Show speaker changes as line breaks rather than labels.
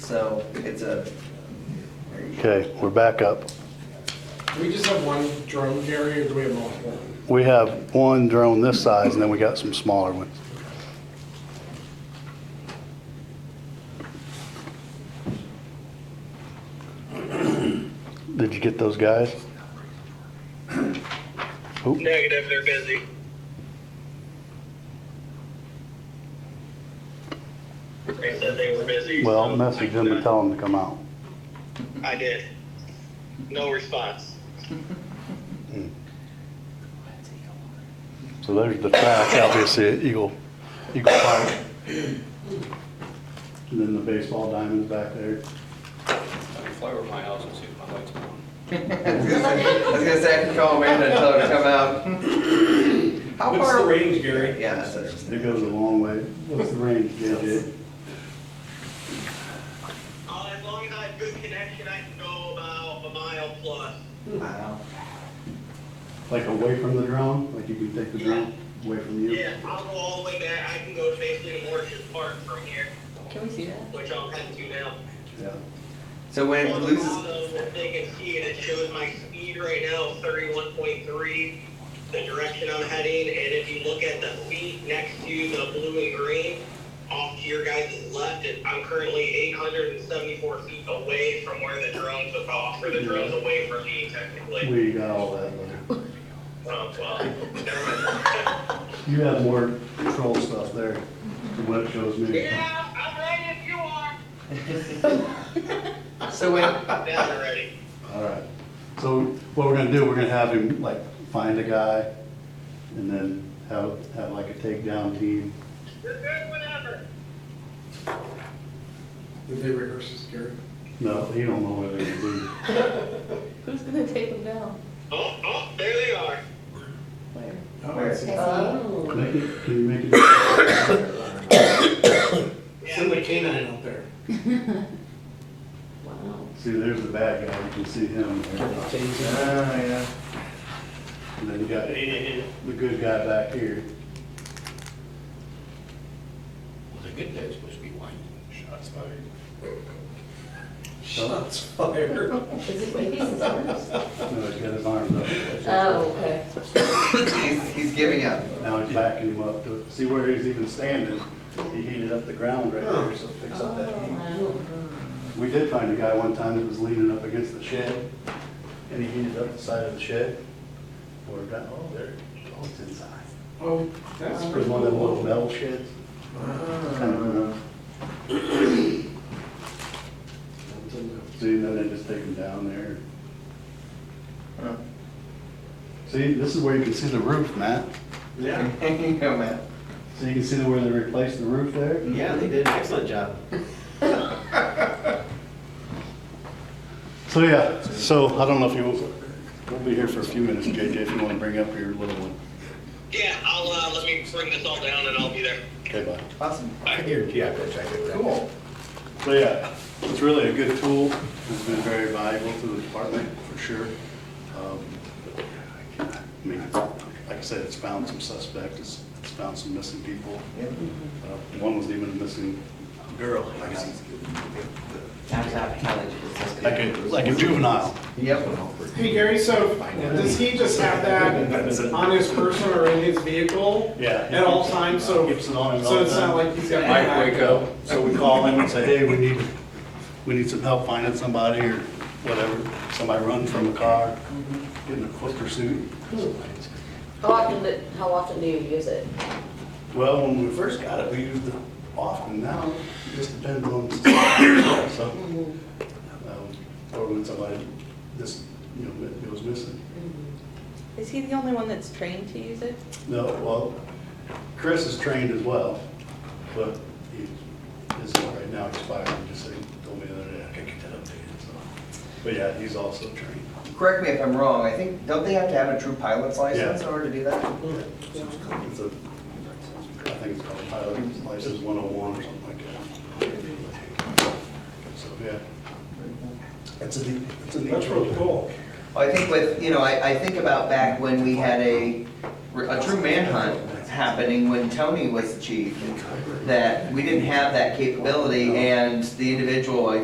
so it's a,
Okay, we're back up.
Do we just have one drone carrier, or do we have multiple?
We have one drone this size, and then we got some smaller ones. Did you get those guys? Oop,
Negative, they're busy. They said they were busy.
Well,
so
I'll message them and tell them to come out.
I did. No response.
So there's the track, obviously, at Eagle, Eagle Park. And then the baseball diamonds back there.
I can fly over my house and see if my lights are on.
I was gonna say, I was gonna say, I can call Amanda and tell her to come out. How
What's the
far?
range, Gary?
Yeah, that's interesting.
It goes a long way. What's the range, JJ?
Uh, as long as I have good connection, I can go about a mile plus.
Wow.
Like away from the drone? Like you can take the drone away from you?
Yeah, I'll go all the way back. I can go to basically Morris's Park from here,
Can we see that?
which I'm heading to now.
Yeah.
So when it
On the
loses,
bottom, if they can see it, it shows my speed right now, thirty-one point three, the direction I'm heading, and if you look at the feet next to the blue and green, off to your guys' left, it- I'm currently eight hundred and seventy-four feet away from where the drone took off, or the drone's away from me technically.
We got all that. later.
Um, well, never mind.
You have more control stuff there than what it shows me.
Yeah, I'm ready if you are.
so when,
Now they're ready.
All right. So what we're gonna do, we're gonna have him like find a guy and then have, have like a takedown team.
You're good whenever.
Did they rehearse this, Gary?
No, he don't know whether he's doing.
Who's gonna take them down?
Oh, oh, there they are.
Where?
Oh,
Where?
it's-
Oh.
Make it, can you make it?
Send the canine out there.
Wow.
See, there's the bad guy. You can see him.
oh, yeah.
And then you got the good guy back here.
Well, the good guy's supposed to be whining. Shots fired.
Shots fired.
Is it maybe his arms?
No, he's got his arms up.
Oh, okay.
He's, he's giving up.
Now he's backing him up to, see where he's even standing. He heated up the ground right there, so fix up that heat.
Oh,
We did find a guy one time that was leaning up against the shed, and he heated up the side of the shed. Or got, oh, there, oh, it's inside.
Oh, that's
It was
pretty
one of them little
cool.
metal sheds. Kind of, uh, See, and then they just take him down there.
Huh.
See, this is where you can see the roof, Matt.
Yeah,
You go, man.
So you can see where they replaced the roof there?
yeah, they did an excellent job.
So, yeah, so I don't know if you, we'll be here for a few minutes, JJ, if you want to bring up your little one.
Yeah, I'll, uh, let me bring this all down and I'll be there.
Okay, bye.
Awesome.
I guarantee I go check it out.
Cool.
So yeah, it's really a good tool. It's been very valuable to the department, for sure. Um, I mean, like I said, it's found some suspects, it's it's found some missing people.
Yeah.
Uh, One was even a missing girl, like a- like a, like a juvenile.
Yep.
Hey, Gary, so does he just have that on his person or in his vehicle?
Yeah.
At all times, so,
Keeps it on and
so
off.
it's not like he's got.
Mike, wake up.
So we call him and say, hey, we need, we need some help finding somebody or whatever. Somebody run from a car, get in a foot pursuit.
How often, do- how often do you use it?
Well, when we first got it, we used it often. Now, it just depends on, the- so, um, or when somebody just, you know, it goes missing.
Is he the only one that's trained to use it?
No, well, Chris is trained as well, but he is right now expired. He just said- told me the other day, I can't get that updated, so. But yeah, he's also trained.
Correct me if I'm wrong, I think, don't they have to have a true pilot's license in
Yeah.
order to do that?
It's a, I think it's called pilot license 101 or something like that. So, yeah. It's a, neat- it's a neat.
That's really cool.
Well, I think with, you know, I, I think about back when we had a, a true manhunt happening when Tony was the chief, that we didn't have that capability, and the individual, I